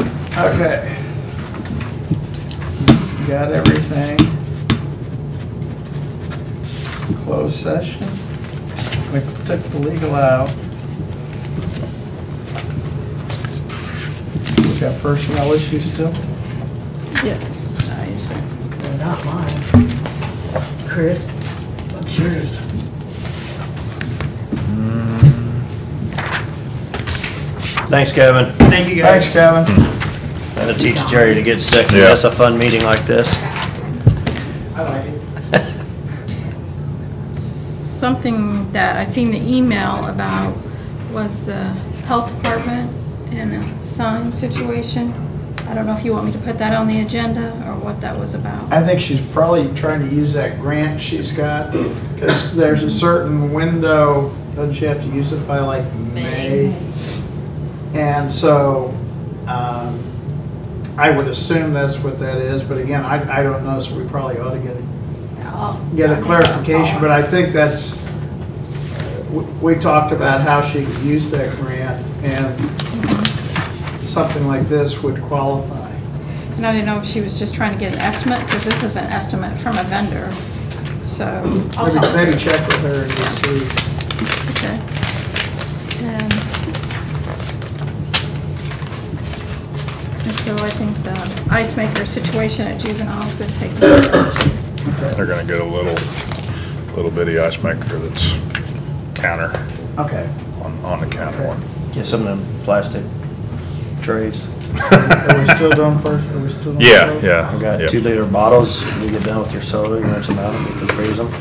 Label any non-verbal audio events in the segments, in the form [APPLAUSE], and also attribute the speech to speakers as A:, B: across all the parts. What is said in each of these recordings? A: Okay. Got everything? Closed session? We took the legal out. We got personnel issues still?
B: Yes, nice.
C: They're Not mine. Chris, what's yours?
D: Thanks, Kevin.
A: Thank you guys. Thanks, Kevin.
D: Trying to teach Jerry to get sick.
E: Yeah.
D: That's a fun meeting like this.
C: I like it.
B: Something that I seen the email about was the health department and a sign situation. I don't know if you want me to put that on the agenda or what that was about.
A: I think she's probably trying to use that grant she's got, because there's a certain window, doesn't she have to use it by like May? And so, um, I would assume that's what that is, but again, I, I don't know, so we probably ought to get a get a clarification, but I think that's, we- we talked about how she could use that grant, and something like this would qualify.
B: And I didn't know if she was just trying to get an estimate, because this is an estimate from a vendor, so. I'll
A: Maybe
B: talk.
A: maybe check with her and just see.
B: Okay. Um, And and so I think the ice maker situation at juvenile has been taken care of.
E: They're gonna get a little, little bitty ice maker that's counter,
A: Okay.
E: on, on the counter one.
D: Get some of them plastic trays.
A: Are we still doing first, are we still doing?
E: [LAUGHS] Yeah,
A: first?
E: yeah.
D: We got
E: yep.
D: two liter bottles. You get done with your soda, you rinse them out, and you can freeze them.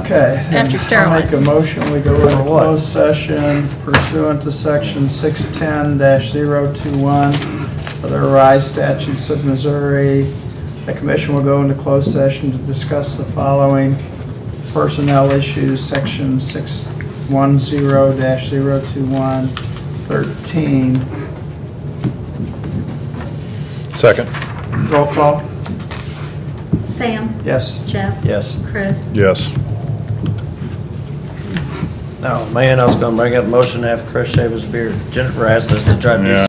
A: Okay. then
B: After
A: I'll make
B: sterilizing.
A: a motion, we go into closed session pursuant to section 610-021 of the Rise statutes of Missouri. The commission will go into closed session to discuss the following personnel issues, section 610-021, 13.
E: Second,
A: Roll call?
F: Sam,
A: Yes.
F: Jeff,
D: Yes.
F: Chris,
E: yes.
D: Oh, man, I was gonna bring up motion to have Chris shave his beard. Jennifer asked us to try to do
E: Yeah.